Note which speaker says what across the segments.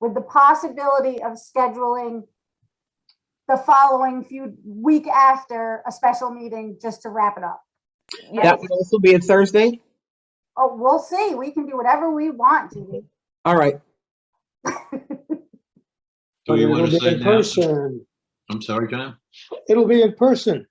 Speaker 1: with the possibility of scheduling the following few, week after, a special meeting just to wrap it up.
Speaker 2: That would also be a Thursday?
Speaker 1: Oh, we'll see. We can do whatever we want, Judy.
Speaker 2: All right,
Speaker 3: Do
Speaker 4: But
Speaker 3: we
Speaker 4: it'll
Speaker 3: want
Speaker 4: be
Speaker 3: to say
Speaker 4: in
Speaker 3: now?
Speaker 4: person.
Speaker 3: I'm sorry, John?
Speaker 4: It'll be in person.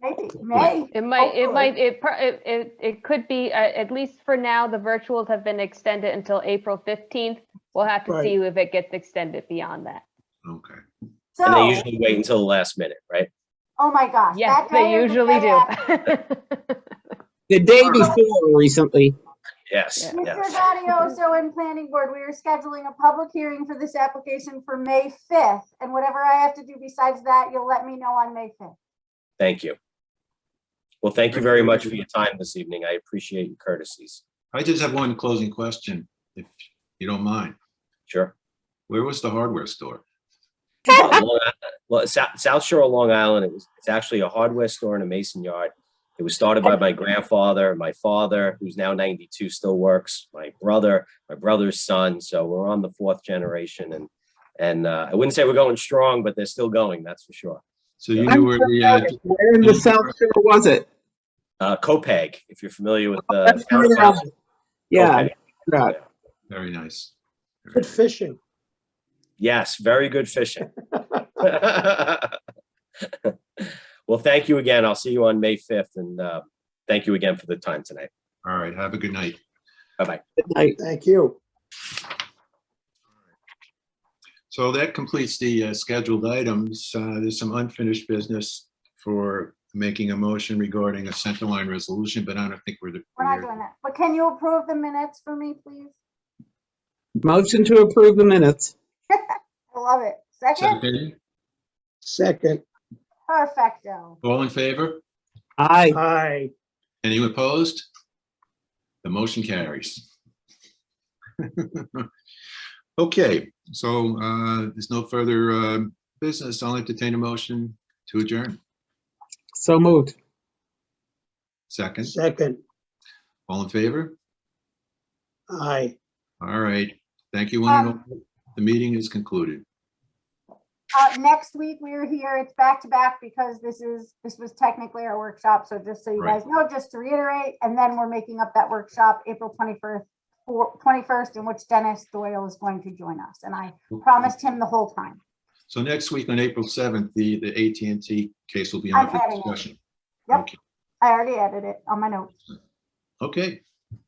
Speaker 1: Maybe, may.
Speaker 5: It might, it
Speaker 4: Oh.
Speaker 1: Hopefully.
Speaker 5: might, it, pro- it, it it could be, uh, at least for now, the virtuals have been extended until April 15th. We'll have to
Speaker 4: Right.
Speaker 5: see if it gets extended beyond that.
Speaker 3: Okay.
Speaker 6: And they
Speaker 1: So,
Speaker 6: usually wait until the last minute, right?
Speaker 1: oh my gosh. that
Speaker 5: Yes, they
Speaker 1: day or the day
Speaker 5: usually do.
Speaker 1: after.
Speaker 2: the day before or recently.
Speaker 6: Yes,
Speaker 5: Yeah.
Speaker 1: Mr.
Speaker 6: yes.
Speaker 1: Gaudioso and Planning Board, we are scheduling a public hearing for this application for May 5th. And whatever I have to do besides that, you'll let me know on May 5th.
Speaker 6: Thank you. Well, thank you very much for your time this evening. I appreciate your courtesies.
Speaker 3: I just have one closing question, if you don't mind.
Speaker 6: Sure.
Speaker 3: Where was the hardware store?
Speaker 6: Long Island- Well, South, South Shore of Long Island, it was, it's actually a hardware store and a mason yard. It was started by my grandfather, my father, who's now ninety-two, still works, my brother, my brother's son, so we're on the fourth generation and, and, uh, I wouldn't say we're going strong, but they're still going, that's for sure.
Speaker 3: So you
Speaker 2: I'm
Speaker 3: knew where the, uh,
Speaker 2: Where in the South Shore was it?
Speaker 6: Uh, Copeg, if you're familiar with the.
Speaker 2: Oh, That's
Speaker 6: town of
Speaker 2: where I was. Yeah,
Speaker 6: Copeg.
Speaker 2: yeah.
Speaker 3: very nice.
Speaker 4: Good fishing.
Speaker 6: Yes, very good fishing. Well, thank you again. I'll see you on May 5th and uh, thank you again for the time tonight.
Speaker 3: All right, have a good night.
Speaker 2: Good night.
Speaker 4: Thank you.
Speaker 3: So that completes the uh, scheduled items. Uh, There's some unfinished business for making a motion regarding a center line resolution, but I don't think we're. the-
Speaker 1: We're not doing that. But can you approve the minutes for me, please?
Speaker 2: Motion to approve the minutes.
Speaker 1: I love it. Second,
Speaker 3: Second?
Speaker 4: Second,
Speaker 1: perfecto.
Speaker 3: All in favor?
Speaker 2: Aye.
Speaker 4: aye.
Speaker 3: Any opposed? The motion carries. Okay, so uh, there's no further uh, business. I'll entertain a motion to adjourn.
Speaker 2: So moved.
Speaker 3: Second,
Speaker 4: Second,
Speaker 3: all in favor?
Speaker 4: aye.
Speaker 3: All right, thank you. one and
Speaker 1: Um,
Speaker 3: all. The meeting is concluded.
Speaker 1: Uh, next week, we are here. It's back to back because this is, this was technically our workshop. So just so you
Speaker 3: Right.
Speaker 1: guys know, just to reiterate, and then we're making up that workshop April 21st, for 21st, in which Dennis Doyle is going to join us. And I promised him the whole time.
Speaker 3: So next week on April 7th, the, the at and T case will be on
Speaker 1: I'm
Speaker 3: for
Speaker 1: adding it.
Speaker 3: discussion.
Speaker 1: Yep.
Speaker 3: Okay.
Speaker 1: I already added it on my notes.
Speaker 3: Okay.
Speaker 1: All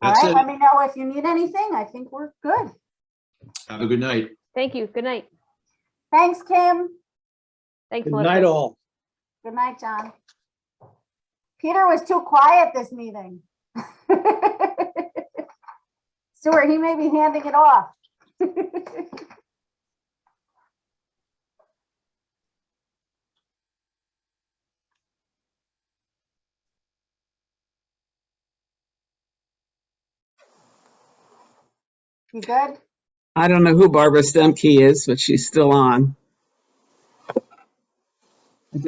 Speaker 3: That's
Speaker 1: right,
Speaker 3: it.
Speaker 1: let me know if you need anything. I think we're good.
Speaker 3: Have a good night.
Speaker 5: Thank you. Good night.
Speaker 1: Thanks, Kim.
Speaker 5: Thanks,
Speaker 4: Good night,
Speaker 5: Melissa.
Speaker 4: all.
Speaker 1: Good night, John. Peter was too quiet this meeting. Stuart, he may be handing it off. You good?
Speaker 2: I don't know who Barbara Stemke is, but she's still on.